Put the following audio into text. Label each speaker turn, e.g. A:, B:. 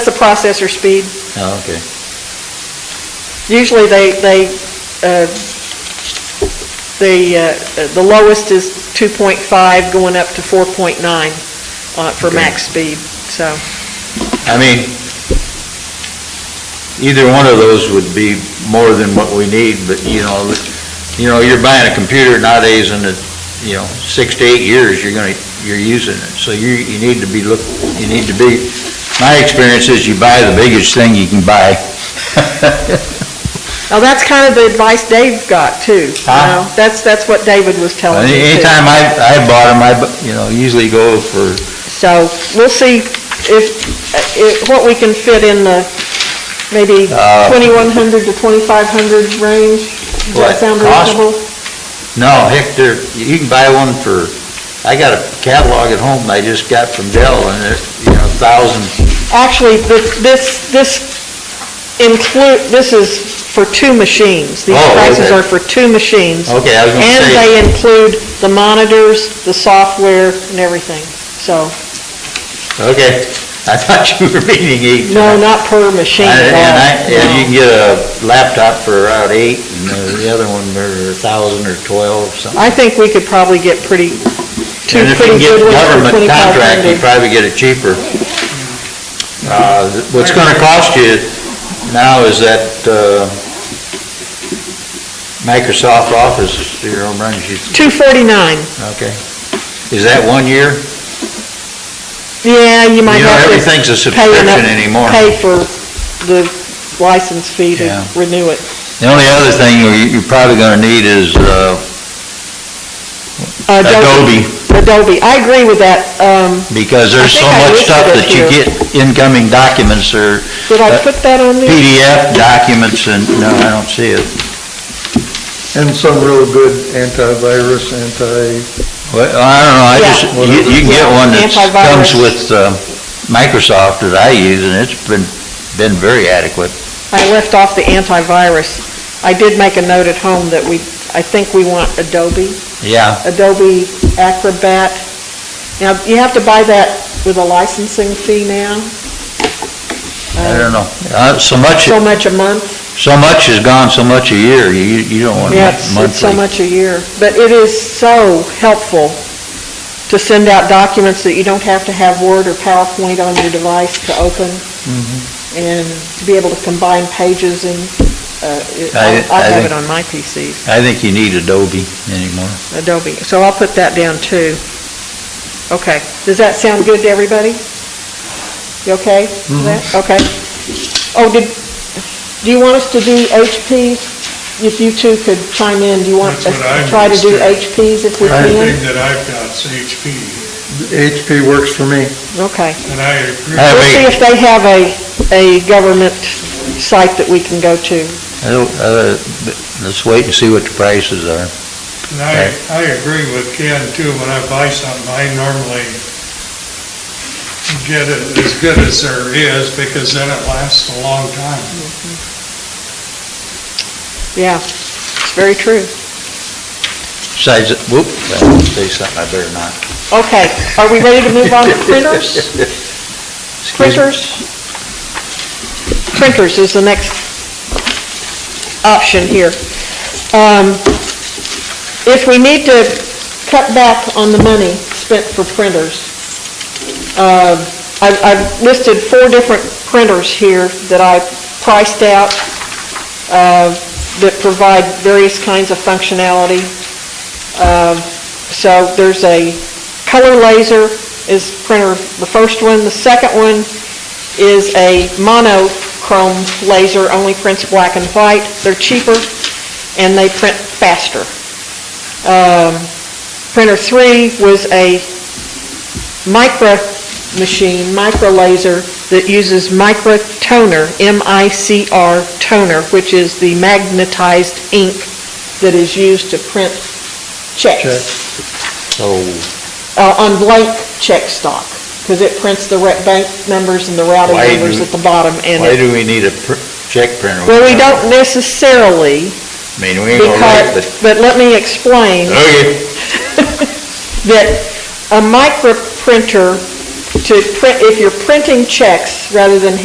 A: the processor speed.
B: Oh, okay.
A: Usually they, they, uh, the, uh, the lowest is 2.5 going up to 4.9 uh, for
B: Okay.
A: max speed, so.
B: I mean, either one of those would be more than what we need, but, you know, you know, you're buying a computer nowadays and it, you know, six to eight years, you're gonna, you're using it. So you, you need to be look, you need to be, my experience is you buy the biggest thing you can buy.
A: Now, that's kind of the advice Dave got, too. you know.
B: Huh?
A: That's, that's what David was telling Oh, me, too.
B: Anytime I, I bought them, I, bu- you know, usually go for,
A: So we'll see if, uh, if, what we can fit in the maybe
B: Uh,
A: 2,100 to 2,500 range. Does that
B: What,
A: sound
B: cost?
A: reasonable?
B: no, heck, there, you can buy one for, I got a catalog at home I just got from Dell and they're, you know, thousand
A: Actually, this, this, this include, this is for two machines. These
B: Oh,
A: prices
B: okay. Oh,
A: are for two machines.
B: Okay, I was gonna
A: And
B: say-
A: they include the monitors, the software, and everything. So,
B: Okay, I thought you were meaning eight.
A: no, not per machine at
B: I-
A: all.
B: And I, and
A: No.
B: you can get a laptop for around eight, and uh, the other one for a thousand or twelve, something.
A: I think we could probably get pretty, two
B: And if you
A: pretty
B: can get
A: good ones for
B: government contract, you
A: 2,500.
B: probably get it cheaper. Uh, th- what's gonna cost you now is that, uh, Microsoft Office, your home runs, you,
A: 249.
B: okay. Is that one year?
A: Yeah, you might
B: You know,
A: have to.
B: everything's a
A: pay enough-
B: subscription anymore.
A: Pay for the license fee to
B: Yeah.
A: renew it.
B: The only other thing you- you're probably gonna need is, uh,
A: Uh,
B: Adobe.
A: Adobe, I agree with that. Um,
B: Because there's so
A: think I
B: much
A: listed
B: stuff
A: it
B: that you
A: here.
B: get incoming documents or
A: did I
B: Uh,
A: put that on there?
B: PDF documents and, no, I don't see it.
C: And some real good antivirus, anti,
B: Well, I don't know, I
A: Yeah.
B: just, you you can get one that comes
A: Antivirus.
B: with uh, Microsoft that I use and it's been, been very adequate.
A: I left off the antivirus. I did make a note at home that we, I think we want Adobe,
B: Yeah,
A: Adobe Acrobat. Now, you have to buy that with a licensing fee now,
B: I don't know. Uh, So much,
A: so much a month.
B: so much is gone, so much a year, you, you don't want
A: Yeah, it's it's so
B: monthly.
A: much a year. But it is so helpful to send out documents that you don't have to have Word or PowerPoint on your device to open,
B: Mm-hmm.
A: and to be able to combine pages and, uh, it-
B: I-
A: I I
B: I
A: have
B: think-
A: it on my PC,
B: I think you need Adobe anymore.
A: Adobe. So I'll put that down, too. Okay. Does that sound good to everybody? You okay
B: Mm-hmm.
A: with that? Okay. Oh, did, do you want us to do HPs? If you two could chime in, do you want us
D: That's what
A: to
D: I'm
A: try to do
D: interested in.
A: HPs if we
D: Everything
A: can?
D: that I've got's HP,
C: HP works for me.
A: Okay.
D: and I agree.
B: I have
A: We'll see
B: eight.
A: if they have a, a government site that we can go to.
B: I don't- uh, but Let's wait and see what the prices are.
D: And I, I agree with Ken too, when I buy something, I normally get it as good as there is, because then it lasts a long time.
A: Yeah, it's very true.
B: Besides, whoop, I want to say something I better not.
A: Okay, are we ready to move on to printers?
B: Excuse me.
A: Printers? Printers is the next option here. Um, If we need to cut back on the money spent for printers, um, I've I've listed four different printers here that I priced out uh, that provide various kinds of functionality. Um, So there's a color laser is printer, the first one. The second one is a monochrome laser, only prints black and white. They're cheaper, and they print faster. Um, Printer three was a micro machine, micro laser, that uses micro toner, M-I-C-R toner, which is the magnetized ink that is used to print checks
B: So,
A: uh, on blank check stock, because it prints the re- bank numbers and the routing
B: Why do-
A: numbers at the bottom, and,
B: Why
A: it-
B: do we need a pr- check printer?
A: well, we don't necessarily,
B: I mean, we ain't gonna oh, write, but,
A: because, but let me explain
B: okay,
A: that a micro printer to print, if you're printing checks rather than